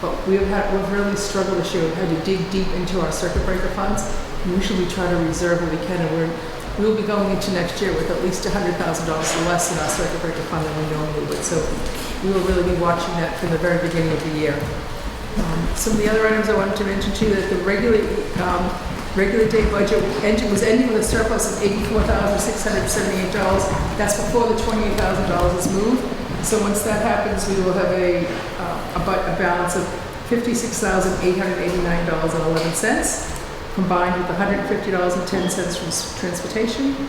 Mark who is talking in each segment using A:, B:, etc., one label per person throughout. A: But we've had, we've really struggled this year. We've had to dig deep into our circuit breaker funds. and Usually we try to reserve what we can and we're, we'll be going into next year with at least hundred thousand dollars less in our circuit breaker fund than we normally would. So we will really be watching that from the very beginning of the year. Um, Some of the other items I wanted to mention too, that the regular, um, regular day budget ended, was ending with a surplus of eighty-four thousand, six hundred seventy-eight dollars. That's before the twenty-eight thousand dollars is moved. So once that happens, we will have a, uh, a bu- a balance of fifty-six thousand, eight hundred eighty-nine dollars and eleven cents, combined with hundred and fifty dollars and ten cents from s- transportation,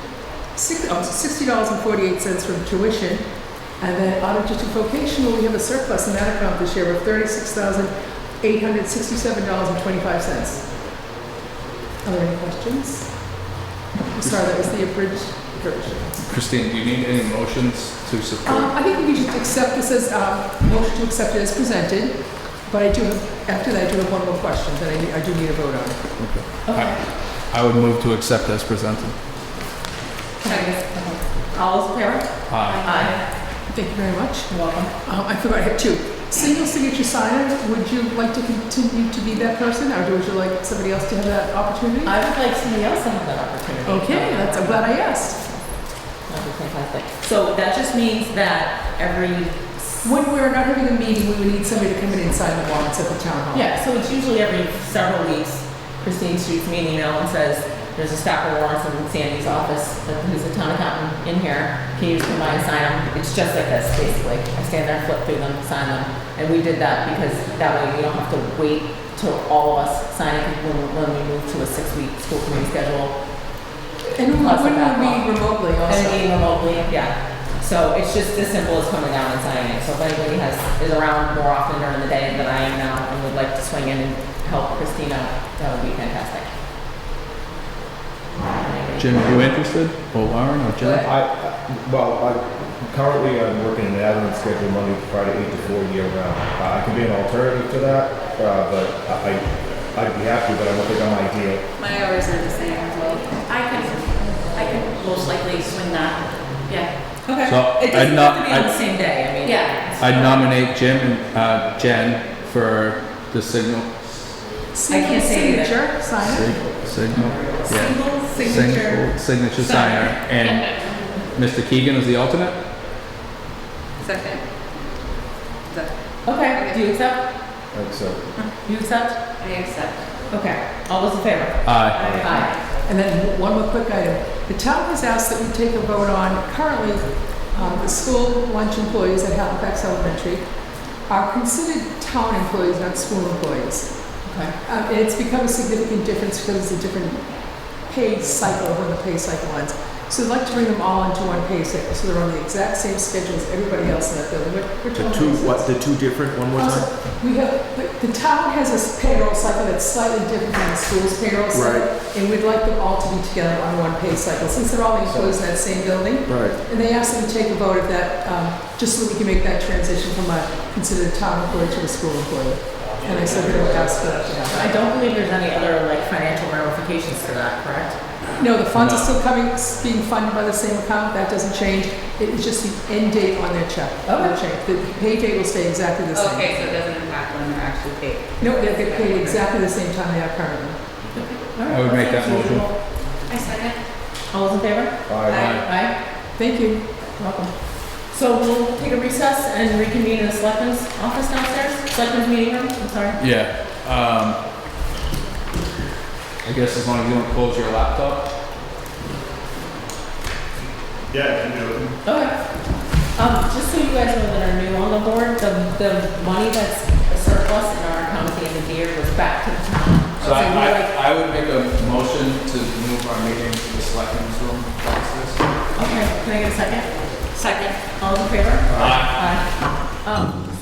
A: six, oh, sixty dollars and forty-eight cents from tuition, and then audited to vocational, we have a surplus in that account this year of thirty-six thousand, eight hundred sixty-seven dollars and twenty-five cents. Are there any questions? I'm Sorry, that was the abridged version.
B: Christine, do you need any motions to
A: Um,
B: support?
A: I think we should accept this as, um, motion to accept it as presented, but I do have, after that, I do have one more question that I, need- I do need a vote on.
B: I I would move to accept as presented.
C: All those in favor?
B: Aye.
C: Aye.
A: Thank you very much.
C: You're welcome.
A: Um, I forgot, I have two. Single signature signer, would you like to continue to be that person, or would you like somebody else to have that opportunity?
C: I would like somebody else to have that opportunity.
A: Okay, that's, I'm glad I asked.
C: That'd be fantastic. So that just means that every,
A: When we're not having a meeting, we would need somebody to come in and sign the warrants at the town hall.
C: yeah, so it's usually every several weeks, Christine shoots me an email and says, there's a stack of warrants in Sandy's office, who's a town accountant in here, can you just come by and sign them? It's just like this, basically. I stand there, flip through them, sign them. And we did that because that way we don't have to wait till all of us sign it when, when we move to a six-week school committee schedule.
A: And we
C: Lots of
A: wouldn't we
C: backlog.
A: remotely
C: And
A: also?
C: meeting remotely, yeah. So it's just as simple as coming down and signing it. So if anybody has, is around more often during the day than I am now and would like to swing in and help Christina, that would be fantastic.
B: Jim, are you interested? Or Lauren or Jen?
D: I, I- well, I, currently I'm working an admin schedule Monday to Friday, eight to four year round. Uh, I can be an alternative to that, uh, but I, I'd be happy, but I don't think I'm ideal.
E: My hours are the same as well. I could, I could most likely swing that, yeah.
C: Okay.
B: So,
C: It
B: I'd
C: doesn't
B: not-
C: have to be on the
B: I'd-
C: same day, I mean.
E: Yeah.
B: I nominate Jim and uh, Jen for the signal,
A: Single
C: can't say either.
A: signature signer?
B: sig- signal, yeah.
C: Single signature.
B: Signature, signature signer, and Mr. Keegan is the alternate?
E: Second.
C: Okay, do you accept?
D: Like, so,
C: You accept?
E: I accept.
C: Okay. All those in favor?
B: Aye.
C: Aye.
A: And then one more quick item. The town has asked that we take a vote on currently, um, the school lunch employees at Halifax Elementary are considered town employees, not school employees.
C: Okay.
A: Um, and it's become a significant difference because it's a different pay cycle when the pay cycle ends. So I'd like to bring them all into one pay cycle, so they're on the exact same schedule as everybody else in that building. We're- we're
F: The
A: told
F: two,
A: it's-
F: what, the two different, one more
A: also,
F: time?
A: Uh, we have, the, the town has a s- payroll cycle that's slightly different than the school's payroll cycle. And we'd like them all to be together on one pay cycle, since they're all enclosed in that same building.
F: Right.
A: And they asked them to take a vote of that, um, just so we can make that transition from a considered town employee to a school employee. And I said, we don't ask for that to happen.
C: I don't believe there's any other like financial ramifications to that, correct?
A: No, the funds are still coming, s- being funded by the same account, that doesn't change. It is just the end date on their check. Will change. The pay date will stay exactly the same.
E: Okay, so it doesn't impact when they're actually paid.
A: No, they get paid exactly the same time they are currently.
B: I would make that motion.
E: I second.
C: All those in favor?
D: I,
C: Aye.
A: Thank you.
C: Welcome. So we'll take a recess and reconvene in the selectmen's office downstairs, selectmen's meeting room, I'm sorry.
B: Yeah, um, I guess as long as you don't close your laptop.
C: Okay. Um, just so you guys know that are new on the board, the, the money that's surplus in our account at the end of the year was back to the town.
B: So I,
C: we like,
B: I, I would make a motion to move our meeting to the selectmen's room downstairs.
C: okay, can I get a second?
E: Second.
B: Uh,
C: All those in favor?
B: Aye.
C: Aye. Um,